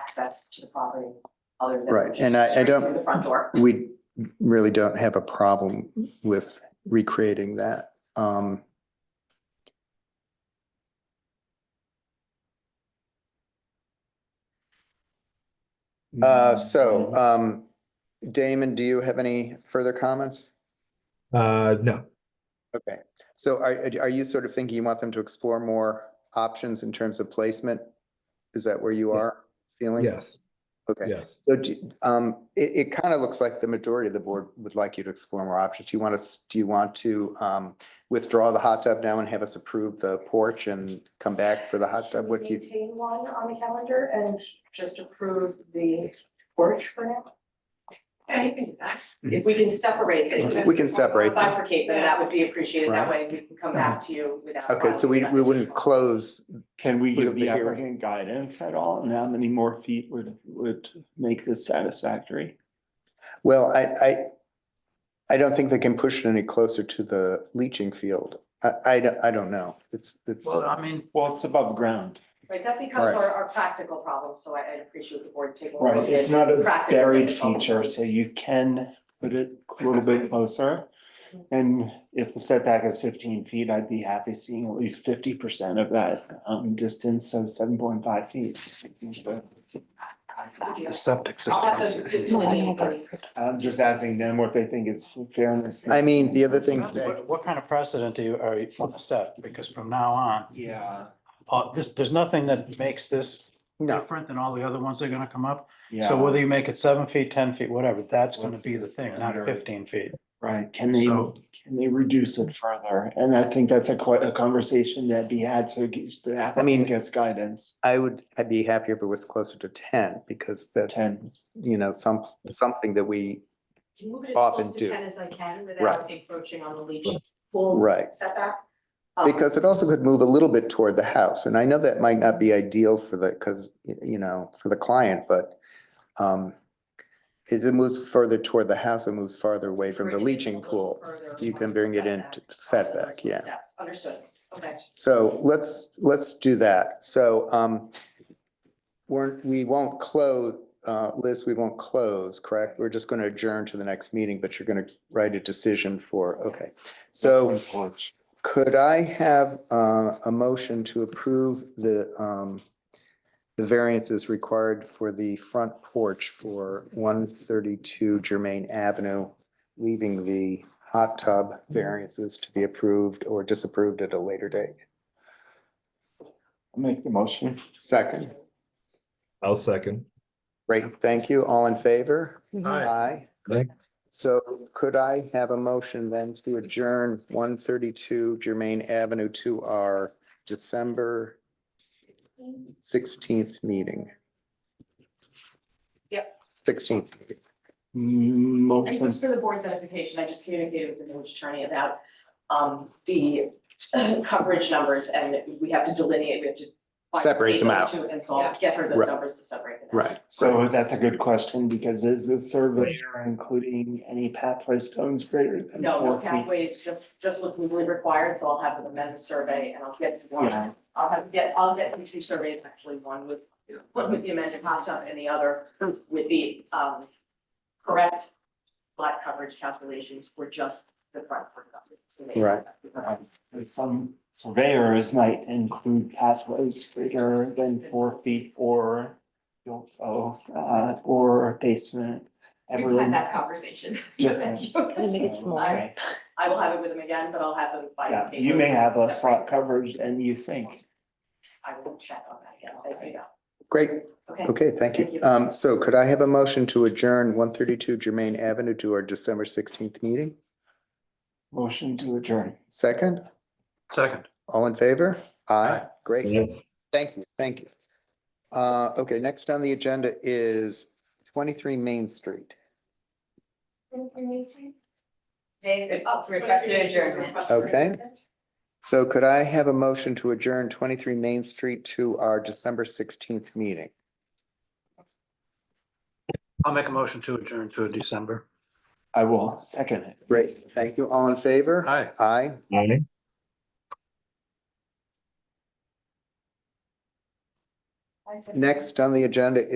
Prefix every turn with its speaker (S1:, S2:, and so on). S1: access to the property other than.
S2: Right,
S1: just
S2: and I- I
S1: straight
S2: don't-
S1: through The front door.
S2: we really don't have a problem with recreating that. Um, uh, so, um, Damon, do you have any further comments?
S3: Uh, no,
S2: Okay, so are, are you sort of thinking you want them to explore more options in terms of placement? Is that where you are feeling?
S3: yes,
S2: Okay.
S3: yes.
S2: So do- um, it, it kind of looks like the majority of the board would like you to explore more options. Do you want us, do you want to um, withdraw the hot tub now and have us approve the porch and come back for the hot tub? What do you,
S1: Maintain one on the calendar and just approve the porch for now? Yeah, you can do that. If we can separate it.
S2: we can separate them.
S1: Bifurcate them, that would be appreciated. That way we can come back to you without.
S2: Okay, so we, we wouldn't close,
S4: Can we
S2: With
S4: give
S2: the
S4: the
S2: hearing.
S4: applicant guidance at all on how many more feet would, would make this satisfactory?
S2: well, I, I, I don't think they can push it any closer to the leaching field. I, I, don't- I don't know. It's, it's,
S4: I mean. Well, it's above ground.
S1: Right, that becomes
S2: Right.
S1: our, our practical problem, so I, I appreciate the board taking. a look
S4: Right,
S1: at
S4: it's not a
S1: practical
S4: buried
S1: difficulties.
S4: feature, so you can put it a little bit closer. And if the setback is fifteen feet, I'd be happy seeing at least fifty percent of that um distance, so seven point five feet.
S3: Septic
S1: I'll have to delineate those.
S4: I'm just asking them what they think is fairness.
S2: I mean, the other thing that,
S5: What what kind of precedent do you, are you gonna set? Because from now on,
S4: Yeah,
S5: uh, this, there's nothing that makes this
S2: no,
S5: different than all the other ones that are gonna come up.
S4: yeah.
S5: So whether you make it seven feet, ten feet, whatever, that's gonna
S4: What's
S5: be the
S4: the
S5: thing, not
S4: standard?
S5: fifteen feet.
S4: Right, can they,
S5: So-
S4: can they reduce it further? And I think that's a quite a conversation that be had, so get- the
S2: mean-
S4: applicant gets guidance.
S2: I would, I'd be happier if it was closer to ten because that,
S4: Ten,
S2: you know, some, something that we,
S1: Can move it as
S2: Often
S1: close to
S2: do.
S1: ten as I can
S2: Right.
S1: without encroaching on the leach pool.
S2: Right.
S1: Setback. Um,
S2: Because it also could move a little bit toward the house, and I know that might not be ideal for the, because, you know, for the client, but um if it moves further toward the house, it moves farther away from the
S1: bring it in a
S2: leaching
S1: little
S2: pool.
S1: further
S2: You can
S1: on
S2: bring it in to
S1: Those
S2: setback,
S1: two
S2: yeah.
S1: steps. Understood, okay.
S2: So let's, let's do that. So um we're, we won't close, uh, Liz, we won't close, correct? We're just gonna adjourn to the next meeting, but you're gonna write a decision for, okay. So Could I have uh, a motion to approve the um, the variances required for the front porch for one thirty-two Germain Avenue, leaving the hot tub variances to be approved or disapproved at a later date?
S4: make the motion.
S2: Second,
S3: I'll second.
S2: great, thank you. All in favor?
S1: Mm-hmm.
S5: Aye.
S2: Aye.
S3: Aye.
S2: So could I have a motion then to adjourn one thirty-two Germain Avenue to our December sixteenth meeting?
S1: Yep.
S2: Sixteenth.
S1: And
S4: Mm, Motion,
S1: just for the board's edification, I just communicated with the village attorney about um the uh, coverage numbers and we have to delineate, we have to.
S2: Separate them
S1: bifurcate those two, And so I'll get her those
S2: Right.
S1: numbers to separate them. out.
S2: Right.
S4: so that's a good question, because is the surveyor including any pathway stones greater than
S1: No, no
S4: four feet?
S1: pathways, just just what's legally required, so I'll have them amend the survey and I'll get one,
S4: Yeah,
S1: I'll have, get, I'll get the two surveys, actually, one with. One with the amended hot tub and the other with the um correct lot coverage calculations for just the front. porch coverage, so they-
S2: Right.
S4: and Some surveyors might include pathways greater than four feet or oh, uh, or basement.
S1: We've
S4: Everyone-
S1: had that conversation.
S4: Yeah.
S1: Thank you.
S4: So,
S1: smaller.
S4: okay.
S1: I will have it with them again, but I'll have them by.
S4: Yeah,
S1: papers
S4: you may have less
S1: separate.
S4: slot coverage than you think.
S1: I will check on that, yeah, thank you, yeah.
S2: Great,
S1: okay.
S2: okay, thank
S1: Thank
S2: you.
S1: you.
S2: Um, so could I have a motion to adjourn one thirty-two Germain Avenue to our December sixteenth meeting?
S4: Motion to adjourn.
S2: Second,
S5: Second.
S2: all in favor? Aye, great,
S3: Yeah.
S2: thank you, thank you. Uh, okay, next on the agenda is twenty-three Main Street.
S1: They requested adjournment.
S2: Okay. So could I have a motion to adjourn twenty-three Main Street to our December sixteenth meeting?
S5: I'll make a motion to adjourn to December.
S4: I will second it.
S2: Great, thank you. All in favor?
S5: Aye.
S2: Aye.
S3: Aye.
S2: Next on the agenda